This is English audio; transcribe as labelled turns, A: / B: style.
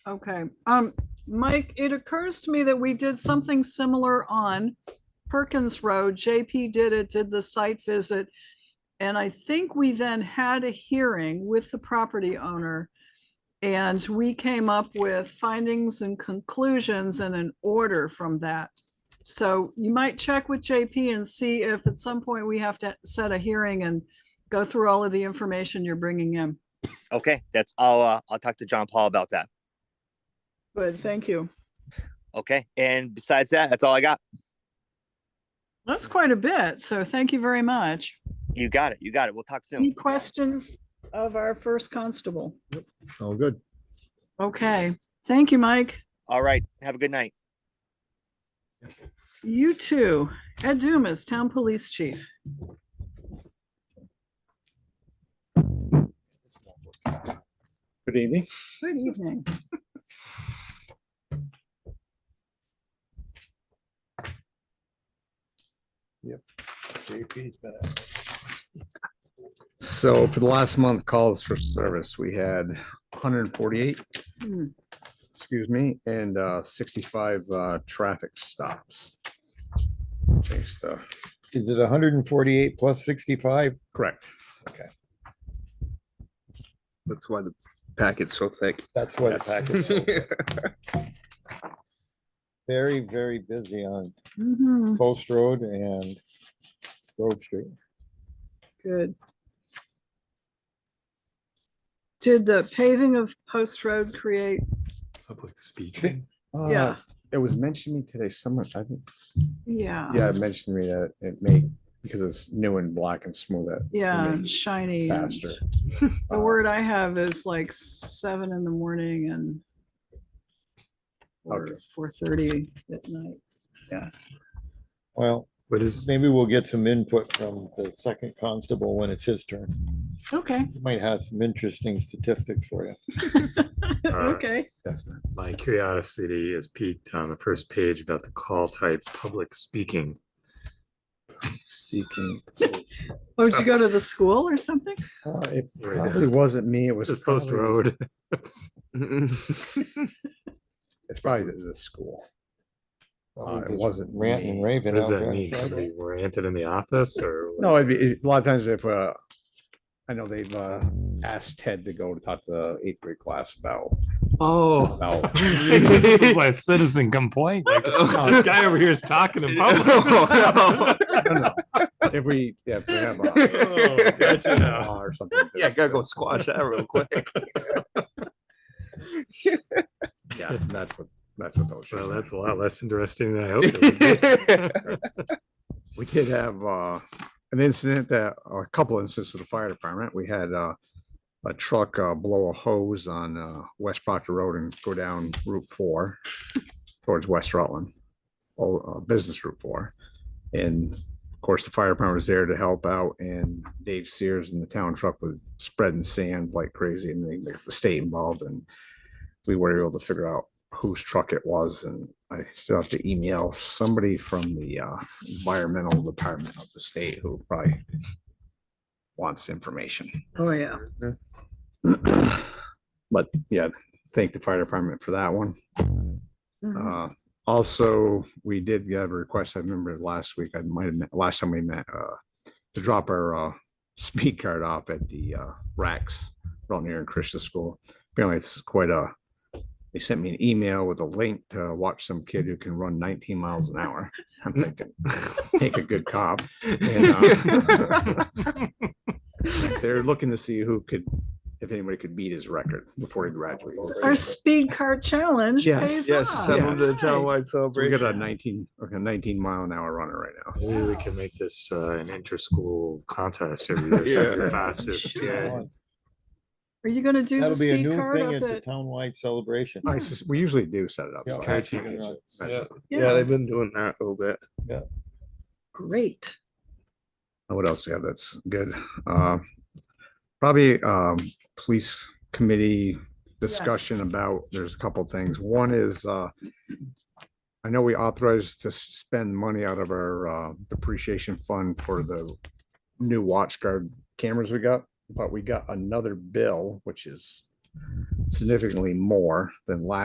A: Okay, um, Mike, it occurs to me that we did something similar on Perkins Road. JP did it, did the site visit. And I think we then had a hearing with the property owner. And we came up with findings and conclusions and an order from that. So you might check with JP and see if at some point we have to set a hearing and go through all of the information you're bringing in.
B: Okay, that's, I'll, uh, I'll talk to John Paul about that.
A: Good, thank you.
B: Okay, and besides that, that's all I got.
A: That's quite a bit, so thank you very much.
B: You got it, you got it. We'll talk soon.
A: Any questions of our first constable?
C: All good.
A: Okay, thank you, Mike.
B: All right, have a good night.
A: You too. Ed Dumas, Town Police Chief.
D: Good evening.
A: Good evening.
D: JP's been out.
C: So for the last month calls for service, we had hundred and forty-eight,
A: Hmm,
C: excuse me, and uh, sixty-five uh, traffic stops. Based, uh,
D: Is it hundred and forty-eight plus sixty-five?
C: Correct.
D: Okay.
C: That's why the packet's so thick.
D: That's why the
C: Yes.
D: packet's so very, very busy on
A: mhm,
D: Post Road and Grove Street.
A: Good. Did the paving of Post Road create,
E: Public speaking.
C: Uh,
A: yeah,
C: It was mentioned to me today, someone, I think,
A: yeah,
C: yeah, it mentioned to me that it may, because it's new and black and smooth that
A: yeah,
C: make it
A: shiny. and-
C: faster.
A: The word I have is like seven in the morning and or
C: Okay.
A: four thirty at night.
D: Well,
E: What is,
D: maybe we'll get some input from the second constable when it's his turn.
A: Okay,
D: He Might have some interesting statistics for you.
E: right.
A: okay.
C: Yes, ma'am.
E: my curiosity is piqued on the first page about the call type, public speaking.
C: Speaking,
A: Oh, did you go to the school or something?
C: uh, it
E: Right there.
C: probably wasn't me, it was.
E: Which is Post
C: probably-
E: Road.
C: It's probably the, the school. Uh,
D: Probably
C: it
D: just
C: wasn't
D: Ranting and
C: me.
D: raving
E: What does
D: out
E: that
D: there.
E: mean?
D: outside.
E: Somebody oriented in the office or? what?
C: No, it'd be- it- a lot of times if, uh, I know they've, uh, asked Ted to go to talk to the eighth grade class about,
E: Oh.
C: about.
E: This is like citizen complaint. like, "Oh, This guy over here is talking in public.
F: Oh,
C: No, no. If we, yeah, if we have a
E: Oh,
C: a
E: gotcha.
C: law or something.
F: Yeah, gotta go squash that real quick.
C: Yeah, that's what, that's what those.
E: Well,
C: are.
E: that's a lot less interesting than I hoped. it would be.
C: We did have uh, an incident that, uh, a couple incidents with the fire department. We had uh, a truck uh, blow a hose on uh, West Proctor Road and go down Route Four towards West Rutland, oh, uh, Business Route Four. And of course, the fire department was there to help out and Dave Sears and the town truck was spreading sand like crazy and they got the state involved and we were able to figure out whose truck it was and I still have to email somebody from the uh, environmental department of the state who probably wants information.
A: Oh, yeah.
C: But yeah, thank the fire department for that one.
A: Mhm.
C: Uh, also, we did get a request, I remember last week, I might have, met- last time we met, uh, to drop our, uh, speed card off at the, uh, racks around here in Krista School. Apparently it's quite a, they sent me an email with a link to watch some kid who can run nineteen miles an hour. I'm thinking, take a good cop. and, uh, They're looking to see who could, if anybody could beat his record before he graduates.
A: Our speed car challenge
C: Yes,
A: pays
F: Yes,
A: off.
F: some of the
A: Right.
F: townwide
C: We got a
F: celebration.
C: nineteen, like a nineteen mile an hour runner right now.
E: Maybe we can make this uh, an inter-school contest every year. so the
F: Yeah.
E: Fastest, yeah.
A: Are you gonna do the
D: That'll be a
A: speed
D: new
A: card
D: thing
A: up
D: at the
A: at?
D: townwide celebration.
C: I sus- we usually do set it up.
D: Yeah,
C: so I
D: okay.
C: actually-
D: Chicken nuggets.
C: I-
F: Yeah,
A: Yeah,
F: they've been doing that a little bit.
A: Great.
C: Uh, What else do we have that's good? Uh, Probably um, police committee discussion about, there's a couple things. One is uh, I know we authorized to spend money out of our uh, depreciation fund for the new watch guard cameras we got, but we got another bill, which is significantly more than last